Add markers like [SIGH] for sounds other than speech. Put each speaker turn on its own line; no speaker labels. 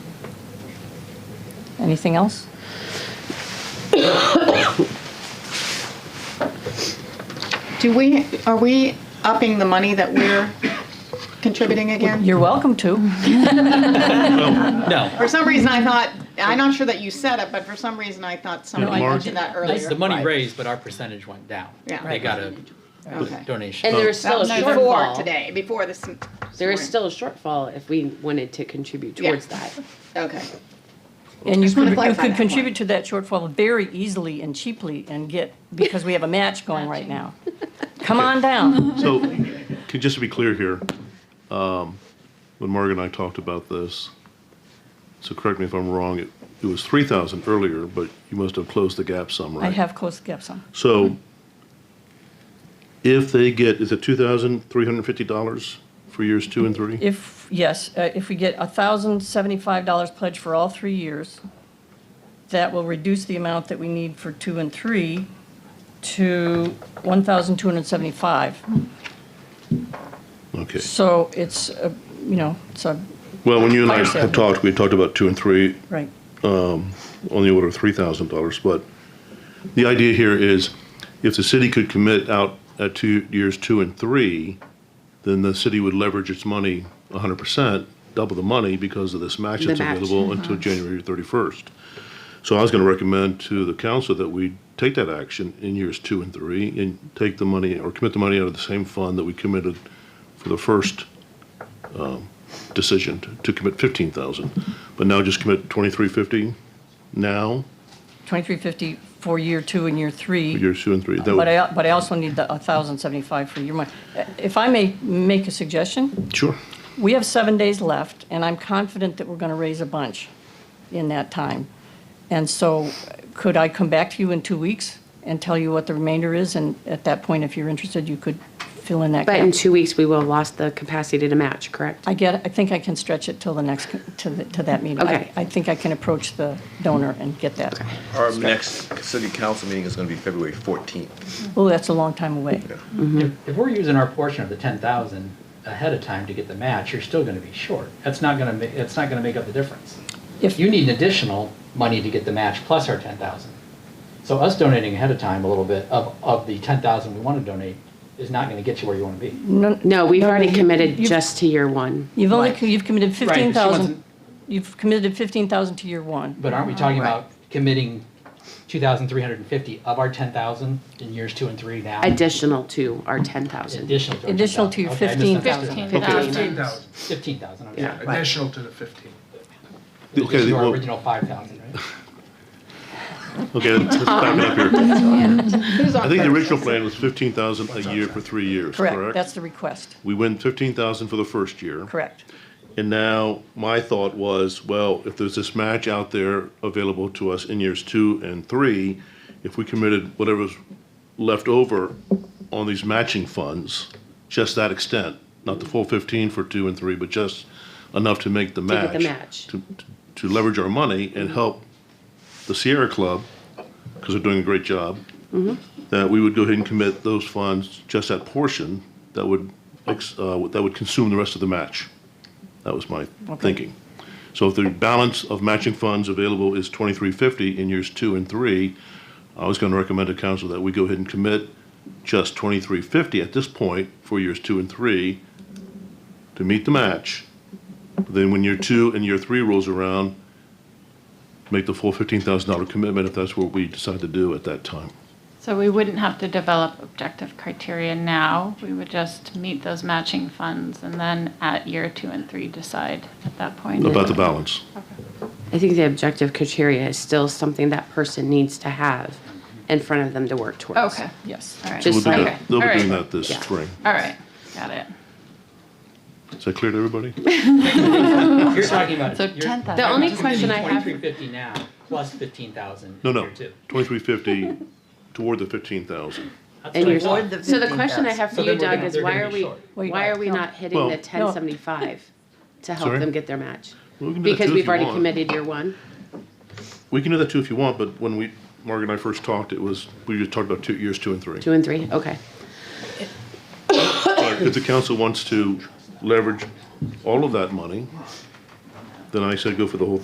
Anything else?
Do we, are we upping the money that we're contributing again?
You're welcome to.
No,
For some reason, I thought, I'm not sure that you said it, but for some reason, I thought somebody
Mark-
mentioned that earlier.
the money
Right.
raised, but our percentage went down.
Yeah.
They got a
Okay.
donation.
And there is
That
still a
was before
shortfall.
today, before this. m-
There is
morning.
still a shortfall if we wanted to contribute
Yeah.
towards [LAUGHS] that.
Okay,
And you
Just wanna
could, you
clarify
could
that
contribute to that shortfall very easily and cheaply and get, because we have a match going right now. Come on
[LAUGHS]
down.
So,
[LAUGHS]
could- just to be clear here, um, when Margaret and I talked about this, so correct me if I'm wrong, it, it was three thousand earlier, but you must have closed the gap some, right?
I have closed the gap some.
So, if they get, is it two thousand three hundred and fifty dollars for years two and three?
If, yes, uh, if we get $1,075 pledge for all three years, that will reduce the amount that we need for two and three to 1,275.
Okay.
So it's, uh, you know, it's a,
Well, when you and I
Fire sale.
had talked, we talked about two and three
right.
on the order of three thousand dollars, but the idea here is if the city could commit out at two, years two and three, then the city would leverage its money hundred percent, double the money because of this match
The
that's
match, Uh-huh.
available until January thirty-first. So I was gonna recommend to the council that we take that action in years two and three and take the money or commit the money out of the same fund that we committed for the first um, decision to- to commit fifteen thousand, but now just commit twenty-three fifty now,
2350 for year two and year three.
years two and three. That
But
would-
I, but I also need the 1,075 for your money. Uh, If I may make a suggestion,
Sure.
we have seven days left, and I'm confident that we're going to raise a bunch in that time. And so uh, could I come back to you in two weeks and tell you what the remainder is? And at that point, if you're interested, you could fill in that
But in
gap.
two weeks, we will have lost the capacity to match, correct?
I get, I think I can stretch it till the next, co- to, the- to that meeting. I-
Okay.
I think I can approach the donor and get that.
Our next city council meeting is going to be February 14th.
Oh, that's a long time away.
Um, If if we're using our portion of the ten thousand ahead of time to get the match, you're still gonna be short. That's not gonna, ma- that's not gonna make up the difference.
If-
You need additional money to get the match plus our ten thousand. So us donating ahead of time a little bit of, of the ten thousand we wanna donate is not gonna get you where you wanna be.
No, we've already
you-
committed
you-
just to year one.
You've only,
Right.
co- you've committed
but she
fifteen thousand,
wasn't-
you've committed fifteen thousand to year one.
But aren't we talking about committing two thousand three hundred and fifty of our ten thousand in years two and three now?
Additional to our ten thousand.
Additional to.
Additional to your fifteen thousand.
Fifteen thousand,
Fifteen thousand, I'm
Yeah.
sorry.
additional to the fifteen.
This
Okay,
is our
well-
original five thousand,
[LAUGHS]
right?
Okay, let's let's back it up here.
who's
I
on
think the
first?
original plan was fifteen thousand a year for three years,
Correct, that's
correct?
the request,
We went fifteen thousand for the first year.
correct.
And now, my thought was, well, if there's this match out there available to us in years two and three, if we committed whatever's left over on these matching funds, just that extent, not the full fifteen for two and three, but just enough to make the match.
get the match.
To, to leverage our money and help the Sierra Club, because they're doing a great job,
Mm-hmm.
that we would go ahead and commit those funds, just that portion, that would, ex- uh, that would consume the rest of the match. That was my thinking. So if the balance of matching funds available is twenty-three fifty in years two and three, I was gonna recommend to council that we go ahead and commit just twenty-three fifty at this point for years two and three to meet the match. Then when year two and year three rolls around, make the full fifteen thousand dollar commitment if that's what we decide to do at that time.
So we wouldn't have to develop objective criteria now. We would just meet those matching funds and then at year two and three decide at that point.
About the balance.
I think the objective criteria is still something that person needs to have in front of them to work towards.
Okay,
Yes.
all right.
So
Just
we'll do
like-
Okay,
that, they'll be
all
doing
right.
that this
Yeah.
spring.
All right, got it.
Is that clear to everybody?
You're talking about.
So
you're-
10,000.
The only
you're
question I
committing
have,
2350 now, plus 15,000
No,
in
no,
year two.
twenty-three fifty toward the fifteen thousand.
That's
and
what I
you're,
thought.
so the question I have
So
for you,
then we're
Doug,
gonna-
is
they're
why
gonna
are
be
we,
short.
Wait,
why are we
no.
not hitting
Well-
the ten seventy-five to help
Sorry?
them get their match?
We can do that
Because
too if
we've
you
already
want.
committed year one.
We can do that too if you want, but when we, Margaret and I first talked, it was, we just talked about two, years two and three.
Two and three, okay.
But If the council wants to leverage all of that money, then I said go for the whole